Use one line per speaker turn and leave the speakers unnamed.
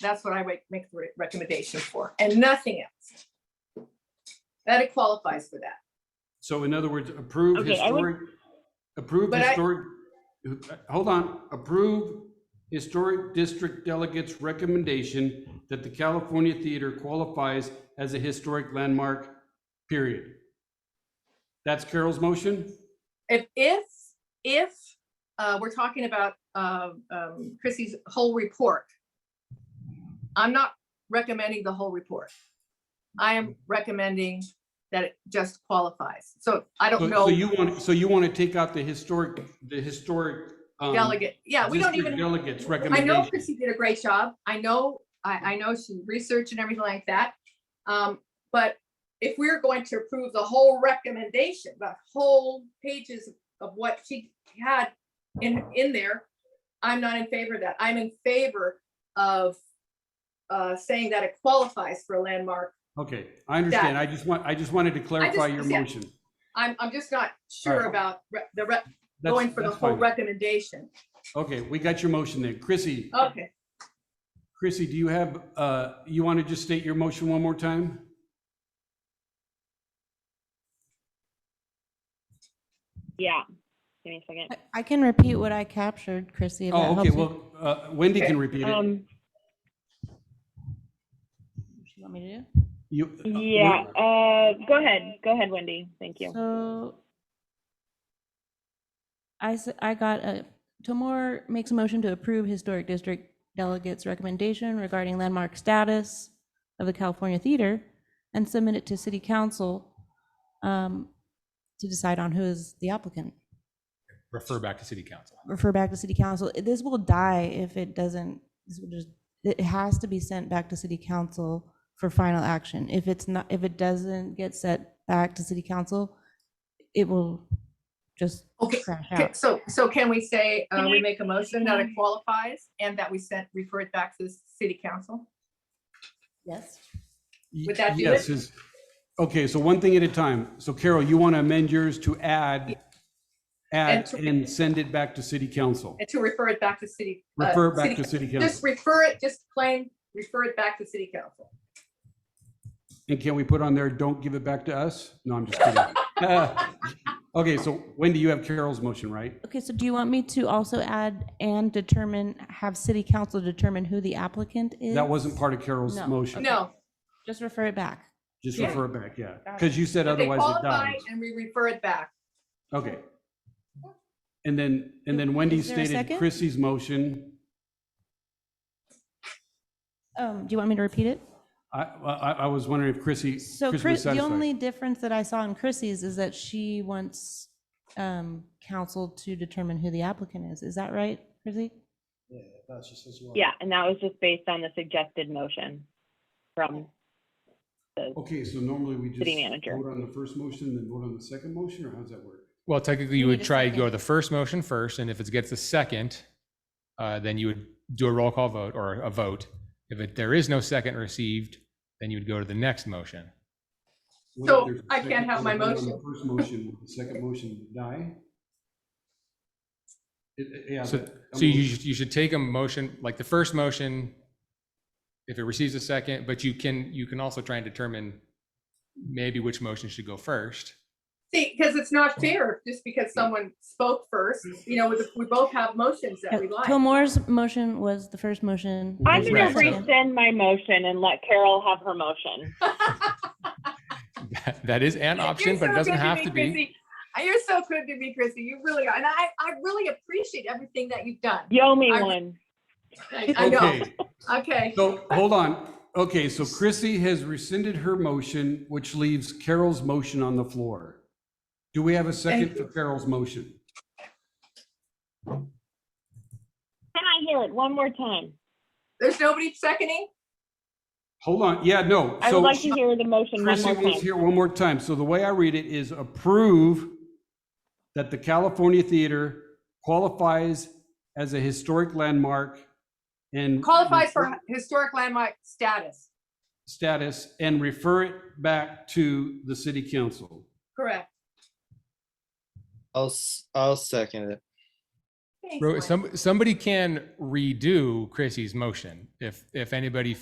That's what I would make the re- recommendation for, and nothing else. That it qualifies for that.
So in other words, approve
Okay, I would-
historic, approve
But I-
historic, hold on, approve historic district delegates' recommendation that the California Theater qualifies as a historic landmark, period. That's Carol's motion?
If, if, if, uh, we're talking about, uh, um, Chrissy's whole report. I'm not recommending the whole report. I am recommending that it just qualifies. So I
So
don't
so
know
you want, so you want to take out the historic, the historic. um,
delegate. Yeah, we don't
district
even,
Delegates
I know
recommendation.
Chrissy did a great job. I know, I, I know she researched and everything like that. Um, but if we're going to approve the whole recommendation, the whole pages of what she had in, in there, I'm not in favor of that. I'm in favor of uh, saying that it qualifies for a landmark.
Okay, I understand. I just want, I just wanted to clarify your
yeah.
motion.
I'm, I'm just not sure
Alright.
about re- the, re-
That's-
going for the
that's
whole
fine.
recommendation.
Okay, we got your motion then. Chrissy,
Okay,
Chrissy, do you have, uh, you want to just state your motion one more time?
Yeah. Give me a second.
I- I can repeat what I captured, Chrissy. if that
Oh, okay,
helps you.
well, uh, Wendy can repeat it.
Um,
You want me to do?
You- uh,
yeah,
Wen-
uh, go ahead. Go ahead, Wendy. Thank you.
So I, s- I got a, Tomor makes a motion to approve historic district delegates' recommendation regarding landmark status of the California Theater and submit it to city council um, to decide on who is the applicant.
refer back to city council.
Refer back to city council. This will die if it doesn't, this will just, it has to be sent back to city council for final action. If it's not, if it doesn't get sent back to city council, it will just
Okay,
crash
Okay,
out.
so, so can we say, uh, we
I-
make a motion that it qualifies and that we sent, refer it back to the city council?
Yes.
would that do
Yes,
it?
is- okay, so one thing at a time. So Carol, you want to amend yours to add, add
to-
and send it back to city council.
And to refer it back to city. uh,
Refer back
city-
to city
Just
council.
refer it, just plain, refer it back to city council.
And can we put on there, don't give it back to us? No, I'm just kidding. Okay, so Wendy, you have Carol's motion, right?
Okay, so do you want me to also add and determine, have city council determine who the applicant is?
That wasn't part of Carol's
No.
motion.
No.
Just refer it back.
Just
Yeah.
refer it back, yeah,
Got it.
because you said
that they
otherwise it
qualify
dies.
And we refer it back.
Okay. And then, and then Wendy
Is there a
stated
second?
Chrissy's motion.
Um, do you want me to repeat it?
I, I, I was wondering if Chrissy,
So
Chris
Chris,
was
the
satisfied.
only difference that I saw in Chrissy's is that she wants um, council to determine who the applicant is. Is that right, Chrissy?
Yeah, and that was just based on the suggested motion from the,
Okay, so normally we just
City manager.
vote on the first motion, then vote on the second motion, or how's that work?
Well, technically,
We
you
need
would
a
try to go
second.
to the first motion first, and if it gets a second, uh, then you would do a roll call vote or a vote. If it, there is no second received, then you would go to the next motion.
What
So
if there's a
I can't
second
have my
vote on the
motion.
First motion, will the second motion die? It- it- Yeah.
So,
but- I
so you,
mean,
should- you should take a motion, like the first motion, if it receives a second, but you can, you can also try and determine maybe which motion should go first.
See, because it's not fair, just because someone spoke first, you know, we- we both have motions that we like.
Tomor's motion was the first motion.
I'm
Right.
gonna
Second.
rescind my motion and let Carol have her motion.
That- That is an option,
You're
but
so
it doesn't
good to
have
me,
to be.
Chrissy. Uh, You're so good to me, Chrissy. You really are. And I, I really appreciate everything that you've done.
Yo me
I-
one.
I I know.
Okay,
Okay.
so, hold on. Okay, so Chrissy has rescinded her motion, which leaves Carol's motion on the floor. Do we have a second for Carol's motion?
Can I hear it one more time?
There's nobody seconding?
Hold on, yeah, no.
I
so
would like to hear the motion one
Chrissy
more
wants to
time.
hear one more time. So the way I read it is approve that the California Theater qualifies as a historic landmark and
Qualifies for historic landmark status.
status and refer it back to the city council.
Correct.
I'll, s- I'll second it.
Thanks,
Ro-
Mike.
Some, somebody can redo Chrissy's motion if, if anybody